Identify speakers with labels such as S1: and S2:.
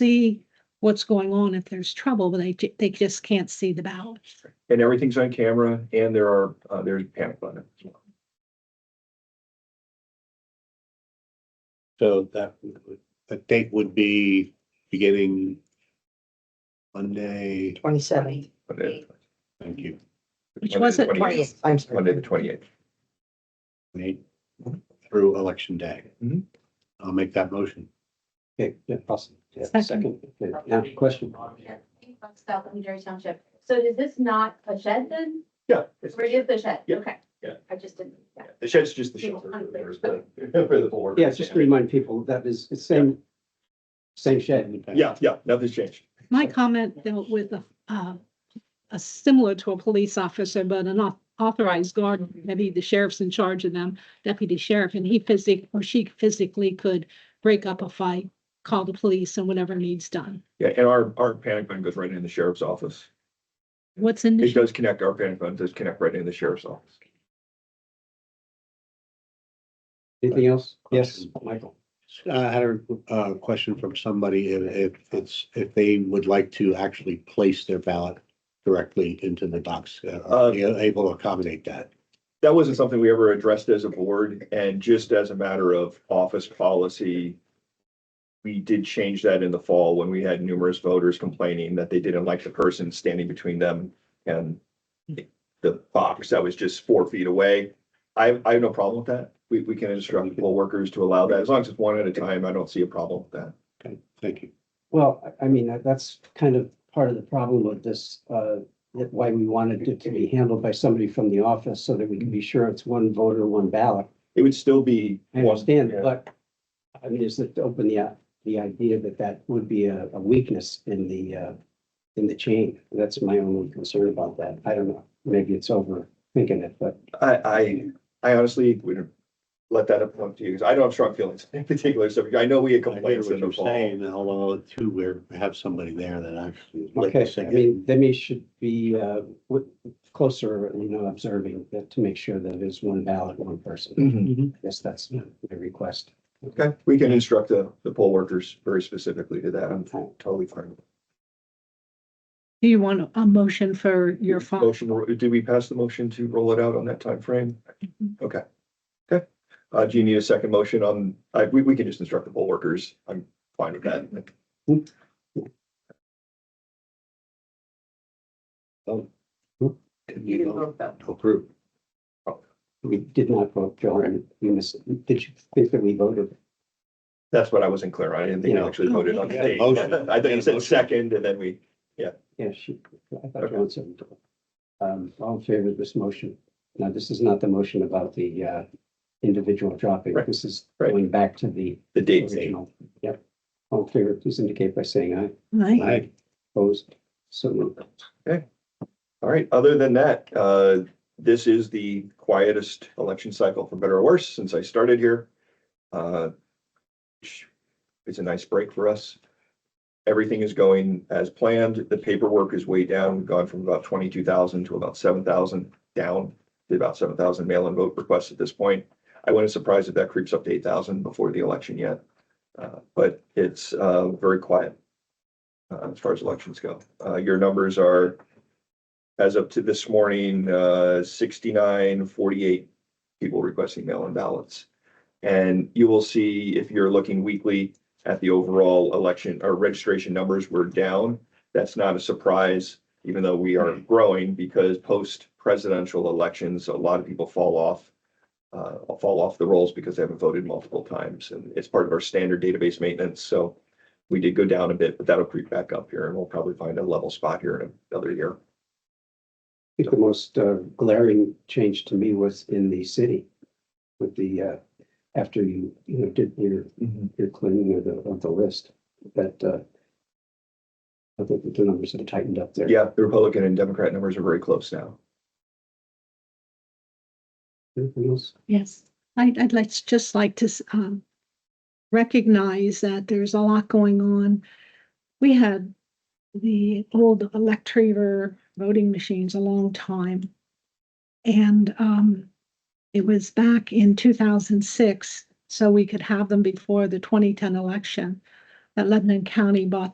S1: see what's going on if there's trouble, but they, ju- they just can't see the ballot.
S2: And everything's on camera and there are, uh, there's a panic button as well.
S3: So that, would- the date would be beginning Monday,
S4: Twenty-seventh,
S2: Monday
S3: thank you,
S1: Which
S2: Monday the
S1: was it?
S2: 28th.
S4: twentieth, I'm
S2: Monday, the
S4: sorry.
S2: twenty-eighth.
S3: Nate, through election day.
S2: Mhm.
S3: I'll make that motion.
S5: Mm-hmm. Okay, yeah, awesome. Yeah,
S1: Second.
S5: second, okay, yeah, question.
S6: South Missouri Township. So is this not a shed then?
S2: Yeah.
S6: Or is the shed?
S2: Yeah.
S6: Okay.
S2: Yeah.
S6: I just didn't. yeah.
S2: The shed's just the shelter. There's the- For the board.
S5: Yeah, just to remind people, that is, it's same, same shed.
S2: Yeah, yeah, nothing's changed.
S1: My comment dealt with a, uh, a similar to a police officer, but an au- authorized guard, maybe the sheriff's in charge of them, deputy sheriff, and he physic, or she physically could break up a fight, call the police and whatever needs done.
S2: Yeah, and our, our panic button goes right in the sheriff's office.
S1: What's in
S2: It
S1: the,
S2: does connect, our panic button does connect right in the sheriff's office.
S5: Anything else? Yes, Michael.
S3: I had a, uh question from somebody, if, if it's, if they would like to actually place their ballot directly into the box, uh, are they able to accommodate that?
S2: That wasn't something we ever addressed as a board and just as a matter of office policy. We did change that in the fall when we had numerous voters complaining that they didn't like the person standing between them and the box that was just four feet away. I, I have no problem with that. We, we can instruct poll workers to allow that. As long as it's one at a time, I don't see a problem with that.
S3: Okay, thank you.
S5: Well, I- I mean, that- that's kind of part of the problem with this, uh, that why we wanted it to be handled by somebody from the office so that we can be sure it's one voter, one ballot.
S2: It would still be.
S5: I
S2: one-
S5: understand,
S2: yeah.
S5: but I mean, is it to open the, the idea that that would be a, a weakness in the, uh, in the chain? That's my only concern about that. I don't know. Maybe it's overthinking it, but
S2: I, I, I honestly wouldn't let that up to you because I don't have strong feelings in particular. So I know we had
S3: I hear
S2: complaints
S3: what
S2: in the
S3: you're
S2: fall.
S3: saying, although too, we're, we have somebody there that actually. like you
S5: okay, I
S3: said,
S5: mean, then we should be, uh, w- closer, you know, observing that to make sure that it's one ballot, one
S2: Mm-hmm.
S5: person. I guess that's my my request.
S2: Okay, we can instruct the, the poll workers very specifically to that. I'm totally fine.
S1: do you want a motion for your file?
S2: Motion, did we pass the motion to roll it out on that time frame?
S1: Mhm.
S2: Okay. Okay. Uh, do you need a second motion on, I, we, we can just instruct the poll workers. I'm fine with that.
S3: you
S4: You didn't
S3: know,
S4: vote though.
S3: Approve.
S5: We did not vote, Joe, and we missed, did you think that we voted?
S2: That's what I wasn't clear on. I didn't think you actually voted on the date.
S3: Motion.
S2: I think you said second and then we,
S5: Yeah, she, I thought Joan said. Um, all in favor of this motion? Now, this is not the motion about the, uh, individual dropping.
S2: Right,
S5: This is
S2: right.
S5: going back to the
S2: the date.
S5: original. Yep. All in favor, please indicate by saying aye.
S1: Right?
S3: Aye.
S5: Opposed? So moved.
S2: All right, other than that, uh, this is the quietest election cycle, for better or worse, since I started here. Uh, It's a nice break for us. Everything is going as planned. The paperwork is way down. We've gone from about twenty-two thousand to about seven thousand down to about seven thousand mail-in vote requests at this point. I wouldn't surprise if that creeps up to eight thousand before the election yet. Uh, But it's uh, very quiet uh, as far as elections go. Uh, Your numbers are as of to this morning, uh, sixty-nine, forty-eight people requesting mail-in ballots. And you will see if you're looking weekly at the overall election, our registration numbers were down. That's not a surprise, even though we are growing because post-presidential elections, a lot of people fall off. Uh, fall off the rolls because they haven't voted multiple times and it's part of our standard database maintenance. So we did go down a bit, but that'll creep back up here and we'll probably find a level spot here in another year.
S5: I think the most uh, glaring change to me was in the city with the, uh, after you, you know, did your your cleaning of the, of the list, that, uh, I think that the numbers have tightened up there.
S2: Yeah, the Republican and Democrat numbers are very close now.
S5: Anything else?
S1: Yes, I, I'd like, just like to, s- um, recognize that there's a lot going on. We had the old Electriver voting machines a long time. And, um, it was back in two thousand six, so we could have them before the twenty ten election. that Lebanon County bought